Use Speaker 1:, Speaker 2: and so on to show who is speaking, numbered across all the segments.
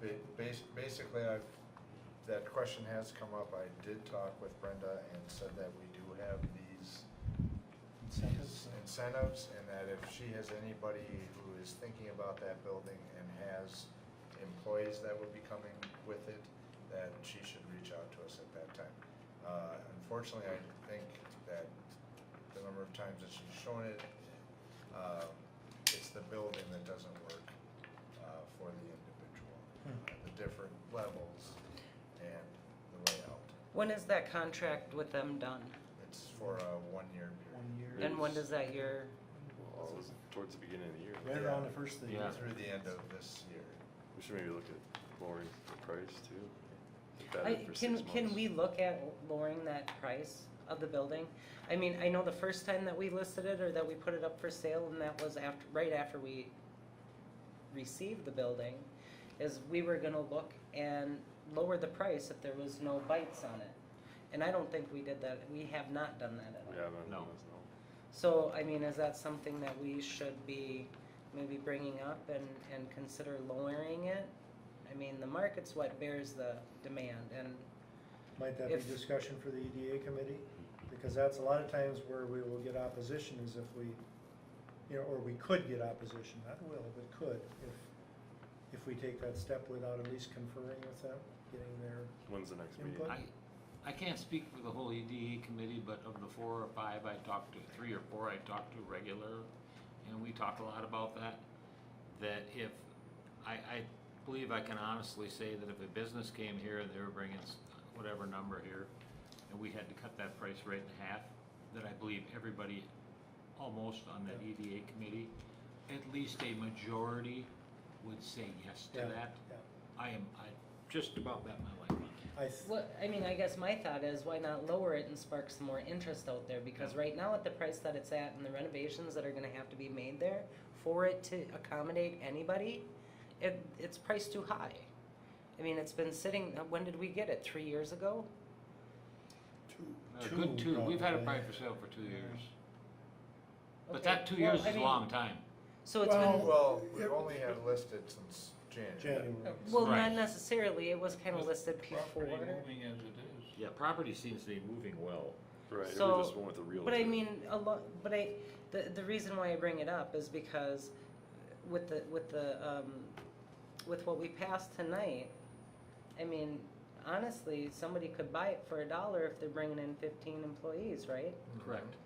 Speaker 1: Ba- bas- Basically, I've, that question has come up. I did talk with Brenda and said that we do have these these incentives,
Speaker 2: Incentives.
Speaker 1: and that if she has anybody who is thinking about that building and has employees that would be coming with it, that she should reach out to us at that time. Uh, Unfortunately, I think that the number of times that she's shown it, um, it's the building that doesn't work uh, for the individual.
Speaker 2: Hmm.
Speaker 1: Uh, The different levels and the layout.
Speaker 3: When is that contract with them done?
Speaker 1: It's for a one-year period.
Speaker 2: One year.
Speaker 3: And when does that year,
Speaker 4: Well, it was towards the beginning of the year.
Speaker 2: Right around the first thing.
Speaker 4: Yeah.
Speaker 1: Through the end of this year.
Speaker 4: We should maybe look at lowering the price too. Look at
Speaker 3: I,
Speaker 4: it for
Speaker 3: can,
Speaker 4: six
Speaker 3: can
Speaker 4: months.
Speaker 3: we look at lowering that price of the building? I mean, I know the first time that we listed it or that we put it up for sale and that was after, right after we received the building, is we were gonna look and lower the price if there was no bites on it. And I don't think we did that, we have not done that at all.
Speaker 4: We haven't.
Speaker 5: No.
Speaker 4: that's no.
Speaker 3: So, I mean, is that something that we should be maybe bringing up and, and consider lowering it? I mean, the market's what bears the demand and,
Speaker 2: Might that be
Speaker 3: If-
Speaker 2: discussion for the EDA committee? Because that's a lot of times where we will get opposition is if we, you know, or we could get opposition, not will, but could, if, if we take that step without at least conferring with them, getting their,
Speaker 4: When's the next meeting?
Speaker 2: Input?
Speaker 5: I, I can't speak for the whole EDA committee, but of the four or five I talked to, three or four I talked to regular, and we talked a lot about that, that if, I, I believe I can honestly say that if a business came here and they were bringing s- whatever number here, and we had to cut that price right in half, that I believe everybody, almost on that EDA committee, at least a majority would say yes to
Speaker 2: Yeah.
Speaker 5: that.
Speaker 2: yeah.
Speaker 5: I am, I just about bet my life on it.
Speaker 2: I, th-
Speaker 3: well, I mean, I guess my thought is why not lower it and spark some more interest out there? Because
Speaker 5: Yeah.
Speaker 3: right now at the price that it's at and the renovations that are gonna have to be made there, for it to accommodate anybody, it, it's priced too high. I mean, it's been sitting, when did we get it? Three years ago?
Speaker 5: A good two, we've had it
Speaker 2: probably.
Speaker 5: probably for sale for two
Speaker 2: Yeah.
Speaker 5: years. But
Speaker 3: Okay,
Speaker 5: that two
Speaker 3: well,
Speaker 5: years
Speaker 3: I
Speaker 5: is a
Speaker 3: mean,
Speaker 5: long time.
Speaker 3: So it's been.
Speaker 2: Well,
Speaker 1: Well, we've only had listed since
Speaker 2: January.
Speaker 1: January.
Speaker 3: Well,
Speaker 5: Right.
Speaker 3: not necessarily, it was kinda listed before.
Speaker 5: as it is. Yeah, property seems to be moving well.
Speaker 4: Right, or
Speaker 3: So-
Speaker 4: we just went with the real.
Speaker 3: But I mean, a lot, but I, the, the reason why I bring it up is because with the, with the, um, with what we passed tonight, I mean, honestly, somebody could buy it for a dollar if they're bringing in fifteen employees, right?
Speaker 1: Mm-hmm.
Speaker 5: Correct.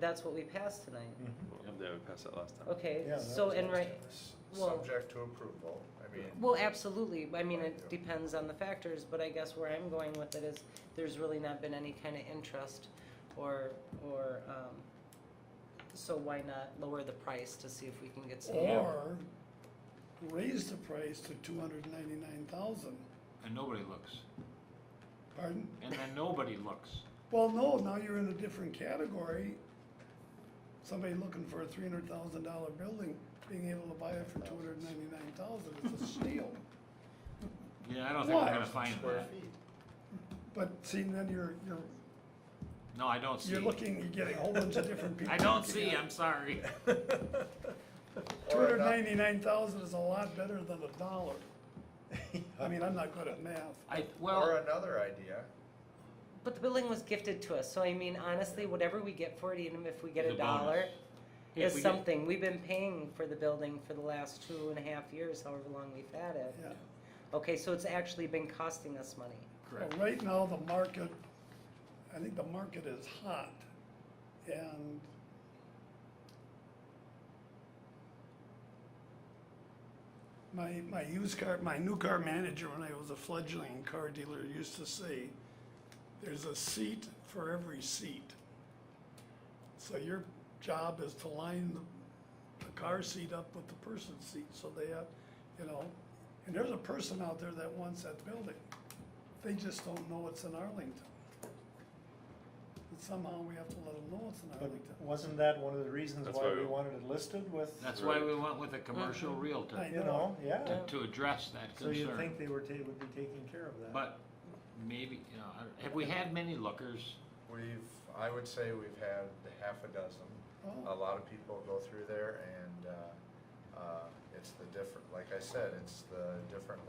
Speaker 3: That's what we passed tonight.
Speaker 2: Mhm.
Speaker 4: Yeah, we passed that last time.
Speaker 3: Okay,
Speaker 2: Yeah, that
Speaker 3: so,
Speaker 2: was
Speaker 3: and
Speaker 2: last
Speaker 3: right,
Speaker 2: time.
Speaker 1: S-
Speaker 3: Well-
Speaker 1: Subject to approval, I mean.
Speaker 3: Well, absolutely, I mean, it depends on the factors, but I guess where I'm going with it is, there's really not been any kind of interest or, or, um, so why not lower the price to see if we can get some?
Speaker 6: Or raise the price to two hundred ninety-nine thousand,
Speaker 5: And nobody looks.
Speaker 6: pardon?
Speaker 5: And then nobody looks.
Speaker 6: Well, no, now you're in a different category. Somebody looking for a three hundred thousand dollar building, being able to buy it for two hundred ninety-nine thousand is a steal.
Speaker 5: Yeah, I don't think we're
Speaker 6: Why?
Speaker 5: gonna find
Speaker 1: Square
Speaker 5: that.
Speaker 1: feet.
Speaker 6: But see, then you're, you're,
Speaker 5: No, I don't see.
Speaker 6: you're looking, you're getting a whole bunch of different people.
Speaker 5: I don't see, I'm sorry.
Speaker 2: Mm-hmm.
Speaker 6: Two
Speaker 1: Or
Speaker 6: hundred
Speaker 1: not-
Speaker 6: ninety-nine thousand is a lot better than a dollar. I mean, I'm not good at math.
Speaker 5: I,
Speaker 1: Or
Speaker 5: well,
Speaker 1: another idea,
Speaker 3: But the building was gifted to us, so I mean, honestly, whatever we get for it, even if we get
Speaker 5: Is
Speaker 3: a
Speaker 5: a bonus.
Speaker 3: dollar,
Speaker 5: Hey, if we
Speaker 3: is
Speaker 5: get-
Speaker 3: something, we've been paying for the building for the last two and a half years, however long we've had it.
Speaker 6: Yeah.
Speaker 3: Okay, so it's actually been costing us money.
Speaker 5: correct.
Speaker 6: Well, Right now, the market, I think the market is hot, and my, my used car, my new car manager, when I was a fledgling car dealer, used to say, there's a seat for every seat. So your job is to line the, the car seat up with the person's seat, so they have, you know, and there's a person out there that wants that building. They just don't know it's in Arlington. And somehow we have to let them know it's in
Speaker 2: But
Speaker 6: Arlington.
Speaker 2: wasn't that one of the reasons
Speaker 4: That's
Speaker 2: why
Speaker 4: why
Speaker 2: we
Speaker 4: we-
Speaker 2: wanted it listed with,
Speaker 5: That's why
Speaker 4: Right.
Speaker 5: we went with a commercial
Speaker 3: Mm-hmm.
Speaker 5: realtor
Speaker 6: I-
Speaker 2: you know, yeah,
Speaker 5: to, to address that
Speaker 2: so you'd
Speaker 5: concern.
Speaker 2: think they were ta- would be taking care of that.
Speaker 5: But maybe, you know, I- have we had many lookers?
Speaker 1: we've, I would say we've had half a dozen. A
Speaker 6: Oh,
Speaker 1: lot of people go through there and, uh, uh, it's the different, like I said, it's the different